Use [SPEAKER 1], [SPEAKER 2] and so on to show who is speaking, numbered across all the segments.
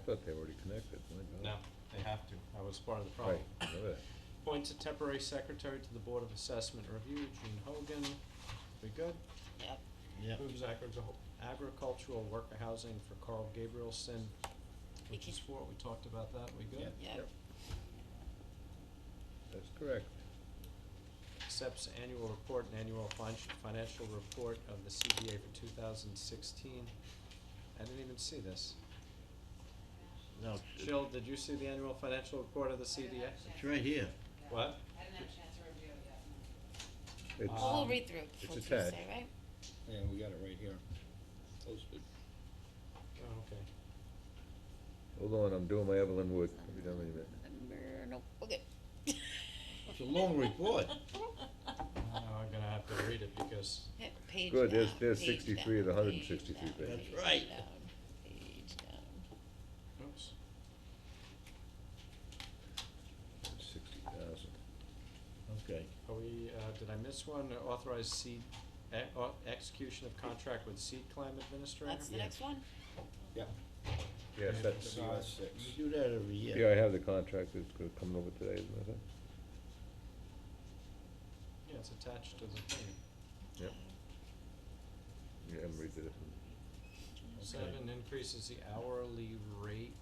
[SPEAKER 1] thought they were already connected, my God.
[SPEAKER 2] No, they have to. That was part of the problem.
[SPEAKER 1] Right, remember that.
[SPEAKER 2] Appoints a temporary secretary to the Board of Assessment Review, Gene Hogan. We good?
[SPEAKER 3] Yep.
[SPEAKER 4] Yep.
[SPEAKER 2] Moves agricultural worker housing for Carl Gabrielson, which
[SPEAKER 3] Okay.
[SPEAKER 2] is for, we talked about that. We good?
[SPEAKER 4] Yep.
[SPEAKER 3] Yep.
[SPEAKER 1] That's correct.
[SPEAKER 2] accepts annual report and annual fin- financial report of the CBA for two thousand sixteen. I didn't even see this.
[SPEAKER 4] No, it's- it's-
[SPEAKER 2] Jill, did you see the annual financial report of the CBA?
[SPEAKER 4] it's right here.
[SPEAKER 2] What?
[SPEAKER 5] I didn't have a chance to review it yet.
[SPEAKER 3] Well,
[SPEAKER 1] It's,
[SPEAKER 3] we'll
[SPEAKER 2] Um,
[SPEAKER 3] read through it
[SPEAKER 1] it's
[SPEAKER 3] before
[SPEAKER 1] attached.
[SPEAKER 3] Tuesday, right?
[SPEAKER 4] Yeah, we got it right here, posted.
[SPEAKER 2] Oh, okay.
[SPEAKER 1] hold on, I'm doing my Evelyn Wood, I'll be done in a minute.
[SPEAKER 3] Number- Nope, okay.
[SPEAKER 4] It's a long report.
[SPEAKER 2] Now Oh, I'm gonna have to read it because,
[SPEAKER 3] Yeah, Page down,
[SPEAKER 1] Good, there's- there's
[SPEAKER 3] page
[SPEAKER 1] 63 of the
[SPEAKER 3] down,
[SPEAKER 1] 163
[SPEAKER 3] page down,
[SPEAKER 1] pages.
[SPEAKER 4] That's right.
[SPEAKER 3] Page down, page down.
[SPEAKER 2] oops,
[SPEAKER 1] Sixty thousand.
[SPEAKER 4] Okay.
[SPEAKER 2] are we, uh, did I miss one? Authorized seed, e- au- execution of contract with seed climb administrator?
[SPEAKER 3] That's the next one?
[SPEAKER 4] Yep.
[SPEAKER 1] Yes,
[SPEAKER 2] Yeah,
[SPEAKER 1] that's,
[SPEAKER 2] so-
[SPEAKER 4] WS six. We do that every year.
[SPEAKER 1] yeah, I have the contract that's go- coming over today, isn't it?
[SPEAKER 2] Yeah, it's attached to the thing.
[SPEAKER 1] Yep. Yeah, Emery did it.
[SPEAKER 2] Seven increases the hourly rate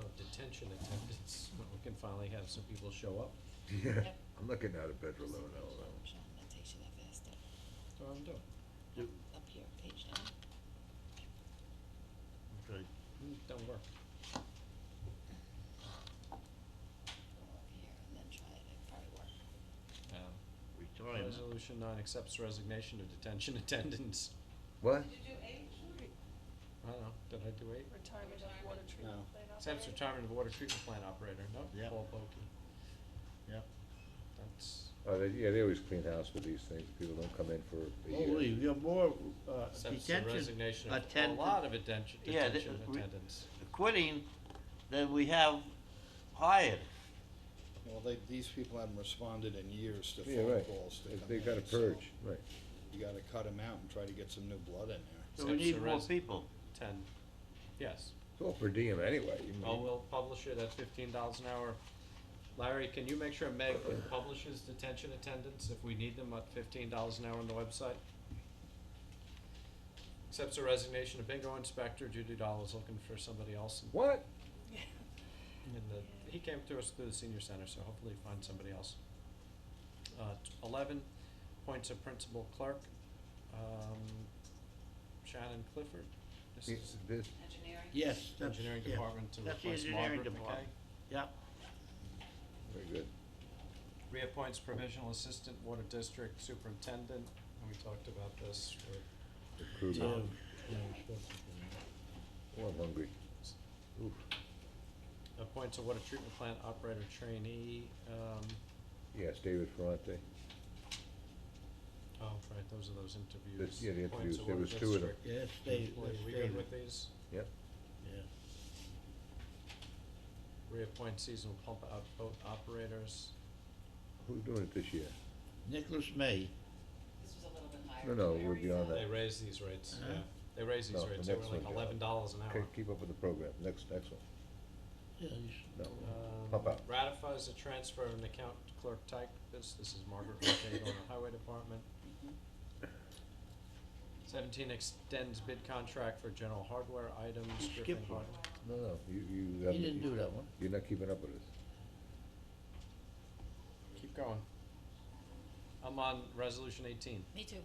[SPEAKER 2] of detention attendance. We can finally have some people show up.
[SPEAKER 1] Yeah,
[SPEAKER 3] Yep.
[SPEAKER 1] I'm not getting out of bed for eleven hours.
[SPEAKER 3] Sean, that takes you that fast, up-
[SPEAKER 2] That's what I'm doing.
[SPEAKER 4] Do-
[SPEAKER 3] up here, page down.
[SPEAKER 4] Okay.
[SPEAKER 2] Mm, Don't work.
[SPEAKER 3] Go up here and then try it, it probably work.
[SPEAKER 2] Um,
[SPEAKER 4] Retirement.
[SPEAKER 2] Resolution nine accepts resignation of detention attendants.
[SPEAKER 1] What?
[SPEAKER 5] Did you do eight?
[SPEAKER 2] I don't know, did I do eight?
[SPEAKER 6] Retirement of water treatment
[SPEAKER 4] No.
[SPEAKER 6] plant
[SPEAKER 2] Accepts
[SPEAKER 6] operator.
[SPEAKER 2] retirement of water treatment plant operator, nope,
[SPEAKER 4] Yep.
[SPEAKER 2] Paul Bulkey.
[SPEAKER 4] Yep.
[SPEAKER 2] That's,
[SPEAKER 1] Oh, they, yeah, they always clean house with these things, people don't come in for a year.
[SPEAKER 4] Holy, we have more, uh,
[SPEAKER 2] accepts the
[SPEAKER 4] detention
[SPEAKER 2] resignation of a
[SPEAKER 4] attendant-
[SPEAKER 2] lot of attention,
[SPEAKER 4] Yeah, the-
[SPEAKER 2] detention
[SPEAKER 4] we-
[SPEAKER 2] attendants.
[SPEAKER 4] quitting than we have hired.
[SPEAKER 7] Well, they, these people haven't responded in years to
[SPEAKER 1] Yeah,
[SPEAKER 7] phone
[SPEAKER 1] right,
[SPEAKER 7] calls to
[SPEAKER 1] They-
[SPEAKER 7] come
[SPEAKER 1] they
[SPEAKER 7] in,
[SPEAKER 1] gotta
[SPEAKER 7] so
[SPEAKER 1] purge, right.
[SPEAKER 7] You gotta cut them out and try to get some new blood in there.
[SPEAKER 4] So we
[SPEAKER 2] Accepts the
[SPEAKER 4] need more
[SPEAKER 2] res-
[SPEAKER 4] people.
[SPEAKER 2] Ten, yes.
[SPEAKER 1] It's all per diem anyway, you mean.
[SPEAKER 2] Oh, Well, we'll publish it at fifteen dollars an hour. Larry, can you make sure Meg publishes detention attendants if we need them at fifteen dollars an hour on the website? Accepts the resignation of bingo inspector, Judy Doll is looking for somebody else in-
[SPEAKER 1] What?
[SPEAKER 2] in the, he came to us through the senior center, so hopefully find somebody else. Uh, t- eleven, appoints a principal clerk, um, Shannon Clifford. This
[SPEAKER 1] It's
[SPEAKER 2] is
[SPEAKER 1] this,
[SPEAKER 5] Engineering?
[SPEAKER 4] Yes, that's,
[SPEAKER 2] engineering
[SPEAKER 4] yeah.
[SPEAKER 2] department to
[SPEAKER 4] That's the
[SPEAKER 2] replace
[SPEAKER 4] engineering
[SPEAKER 2] Margaret McKay.
[SPEAKER 4] department. Yep.
[SPEAKER 1] very good.
[SPEAKER 2] reappoints provisional assistant water district superintendent, and we talked about this with
[SPEAKER 1] The crew.
[SPEAKER 4] So,
[SPEAKER 1] Oh, I'm hungry. Oof.
[SPEAKER 2] appoints a Uh, water treatment plant operator trainee, um,
[SPEAKER 1] Yes, David Ferrante.
[SPEAKER 2] oh, right, those are those interviews.
[SPEAKER 1] yeah, the
[SPEAKER 2] Appoints a
[SPEAKER 1] interviews, there
[SPEAKER 2] water
[SPEAKER 1] was two of them.
[SPEAKER 2] district
[SPEAKER 4] Yes, they,
[SPEAKER 2] employee.
[SPEAKER 4] that's
[SPEAKER 2] We good
[SPEAKER 4] David,
[SPEAKER 2] with these?
[SPEAKER 1] Yep.
[SPEAKER 4] yeah.
[SPEAKER 2] Reappoint seasonal pump out boat operators,
[SPEAKER 1] Who's doing it this year?
[SPEAKER 4] Nicholas May,
[SPEAKER 5] This was a little bit higher.
[SPEAKER 1] No, no,
[SPEAKER 5] Did I
[SPEAKER 1] we're
[SPEAKER 5] raise
[SPEAKER 1] beyond
[SPEAKER 5] that?
[SPEAKER 2] they raise these rates, yeah,
[SPEAKER 4] Uh-huh.
[SPEAKER 2] they raise these
[SPEAKER 1] No, the
[SPEAKER 2] rates, they were
[SPEAKER 1] next
[SPEAKER 2] like
[SPEAKER 1] one, yeah.
[SPEAKER 2] eleven dollars an hour.
[SPEAKER 1] Okay, keep up with the program. Next, next one.
[SPEAKER 4] yeah, he's-
[SPEAKER 1] No.
[SPEAKER 2] Um,
[SPEAKER 1] Pump out.
[SPEAKER 2] ratifies the transfer of an account to clerk typist, this is Margaret McCabe on the highway department. Seventeen extends bid contract for general hardware items,
[SPEAKER 4] Skip
[SPEAKER 2] Griffin
[SPEAKER 4] one.
[SPEAKER 2] Hard.
[SPEAKER 1] No, no, you, you haven't.
[SPEAKER 4] didn't do that one.
[SPEAKER 1] You're not keeping up with us.
[SPEAKER 2] Keep going. I'm on resolution eighteen,
[SPEAKER 3] Me too.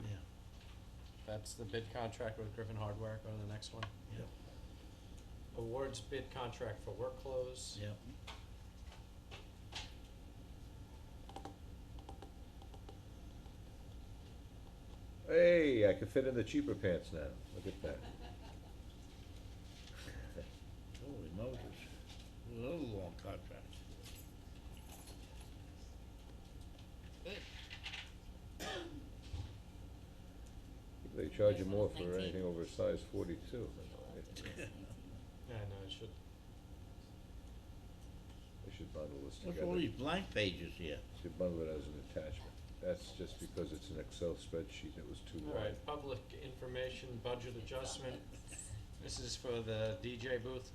[SPEAKER 4] yeah,
[SPEAKER 2] that's the bid contract with Griffin Hardware, go to the next one.
[SPEAKER 4] Yep.
[SPEAKER 2] Awards bid contract for work clothes.
[SPEAKER 4] yeah.
[SPEAKER 1] Hey, I can fit in the cheaper pants now. Look at that.
[SPEAKER 4] Holy Moses. Another long contract.
[SPEAKER 3] Good.
[SPEAKER 1] They charge you
[SPEAKER 3] Nice.
[SPEAKER 1] more for
[SPEAKER 3] Nineteen.
[SPEAKER 1] anything over a size forty-two.
[SPEAKER 2] Yeah, I know, it should,
[SPEAKER 1] They should bundle this
[SPEAKER 4] What's
[SPEAKER 1] together.
[SPEAKER 4] all these blank pages here?
[SPEAKER 1] Should bundle it as an attachment. That's just because it's an Excel spreadsheet that was too
[SPEAKER 2] all
[SPEAKER 1] wide.
[SPEAKER 2] right, public information budget adjustment, this is for the DJ booth